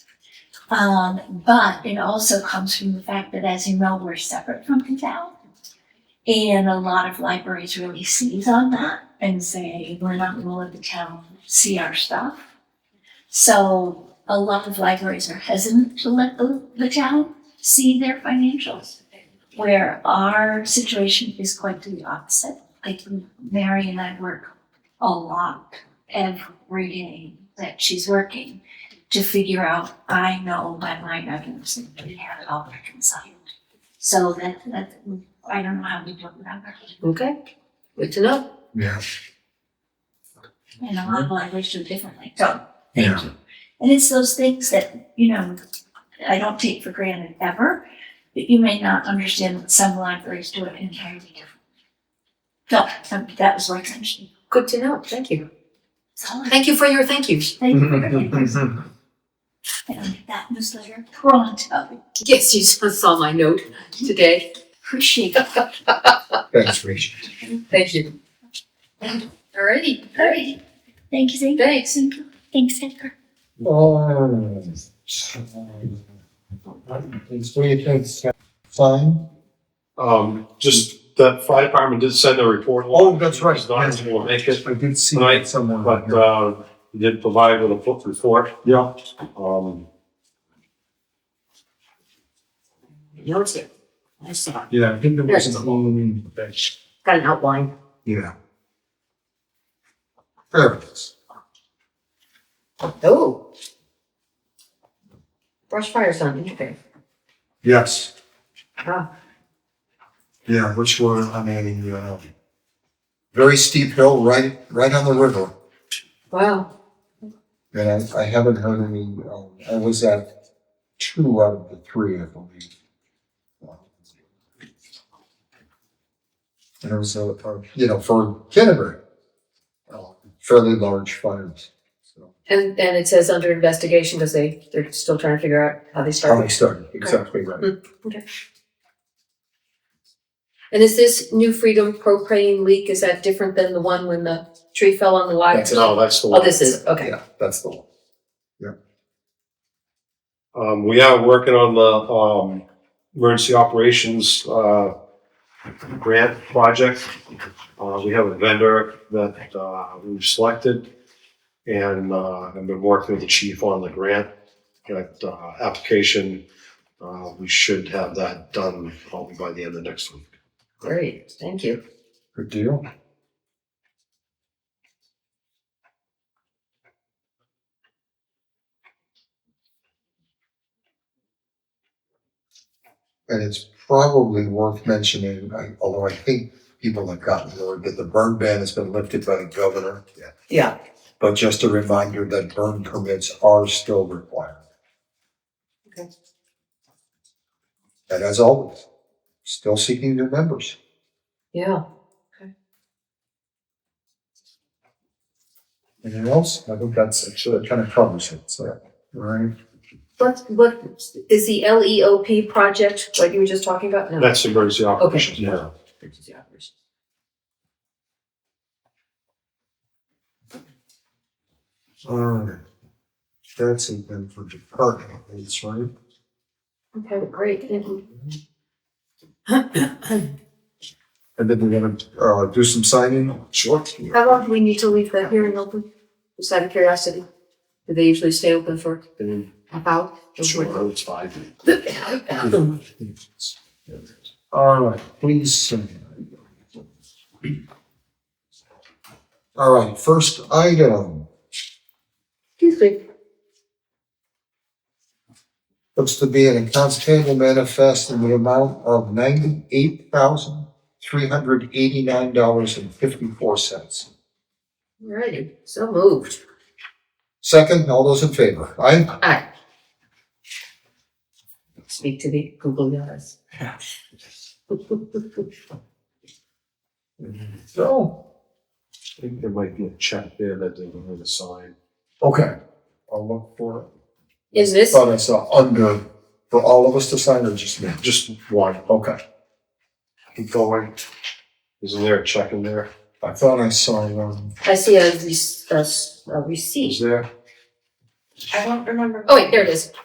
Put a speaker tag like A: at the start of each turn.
A: Um, but it also comes from the fact that, as you know, we're separate from the town. And a lot of libraries really seize on that and say, we're not gonna let the town see our stuff. So a lot of libraries are hesitant to let the, the town see their financials. Where our situation is quite the opposite. Like Mary and I work a lot every day that she's working to figure out, I know by line items that we have it all reconciled. So that, that, I don't know how we do it without her.
B: Okay, good to know.
C: Yeah.
A: And a lot of libraries do it differently, so,
C: Yeah.
A: thank you. And it's those things that, you know, I don't take for granted ever, that you may not understand that some libraries do it entirely different. So, um, that was worth mentioning.
B: Good to know. Thank you.
A: So,
B: Thank you for your thank yous.
A: thank you for everything. And that newsletter pronto,
B: Yes, you saw my note today.
A: appreciate it.
C: That's Rachel.
B: Thank you. Alrighty, alright,
A: Thank you, thank you,
B: thanks.
A: thanks, Edgar.
C: Oh. It's three attempts. Fine.
D: Um, just the fire department did send a report.
C: Oh, that's right.
D: It's not able to make it,
C: I did see
D: Right,
C: someone.
D: but, uh, he did provide with a book report,
C: Yeah.
D: um.
B: Notes it. I saw.
C: Yeah, I think there was
B: Yes.
C: an own bench.
B: Got an outline.
C: Yeah. There it is.
B: Oh. Brush fire sign, okay.
C: Yes.
B: Ah.
C: Yeah, which were on a, uh, very steep hill, right, right on the river.
B: Wow,
C: And I, I haven't heard any, um, I was at two out of the three, I believe. And it was a, a, you know, for Kennebrew, uh, fairly large fires. So,
B: and, and it says under investigation because they, they're still trying to figure out how they
C: How
B: started.
C: they started, exactly right.
B: And is this New Freedom propane leak, is that different than the one when the tree fell on the water?
C: That's
D: No, that's the
B: Oh,
D: one.
B: this is, okay.
C: Yeah, that's the one.
D: Um, we are working on the, um, emergency operations, uh, grant project. Uh, we have a vendor that, uh, we've selected. And, uh, I've been working with the chief on the grant, that, uh, application. Uh, we should have that done probably by the end of next week.
B: Great, thank you.
C: Good deal. And it's probably worth mentioning, I- although I think people have gotten word that the burn ban has been lifted by the governor. Yeah.
B: Yeah,
C: But just a reminder that burn permits are still required.
B: Okay.
C: And as always, still seeking new members.
B: yeah.
C: Anything else? I think that's actually kind of covers it, so, right?
B: What, what, is the LEOP project, what you were just talking about? No.
D: That's emergency operations. Yeah.
C: Alright. That's it then for department heads, right?
B: Okay, great, thank you.
C: And then we're gonna, uh, do some signing. Sure.
B: How long do we need to leave the hearing open? Just out of curiosity, do they usually stay open for about?
D: Sure, it's fine.
C: Alright, please. sign. Alright, first item,
B: Excuse me.
C: looks to be an accounts payable manifest in the amount of ninety-eight thousand, three hundred eighty-nine dollars and fifty-four cents.
B: Alrighty, so moved.
C: Second, all those in favor? Aye?
B: Aye. Speak to the Google guys.
C: So.
D: I think there might be a check there that they can really sign.
C: Okay, I'll look for
B: Is
C: it.
B: this,
C: Thought I saw under, for all of us to sign or just me?
D: Just one,
C: Okay,
D: keep going. Isn't there a check in there?
C: I thought I saw one.
B: I see a rec- a s- a receipt.
D: Is there?
B: Oh, wait, there it is.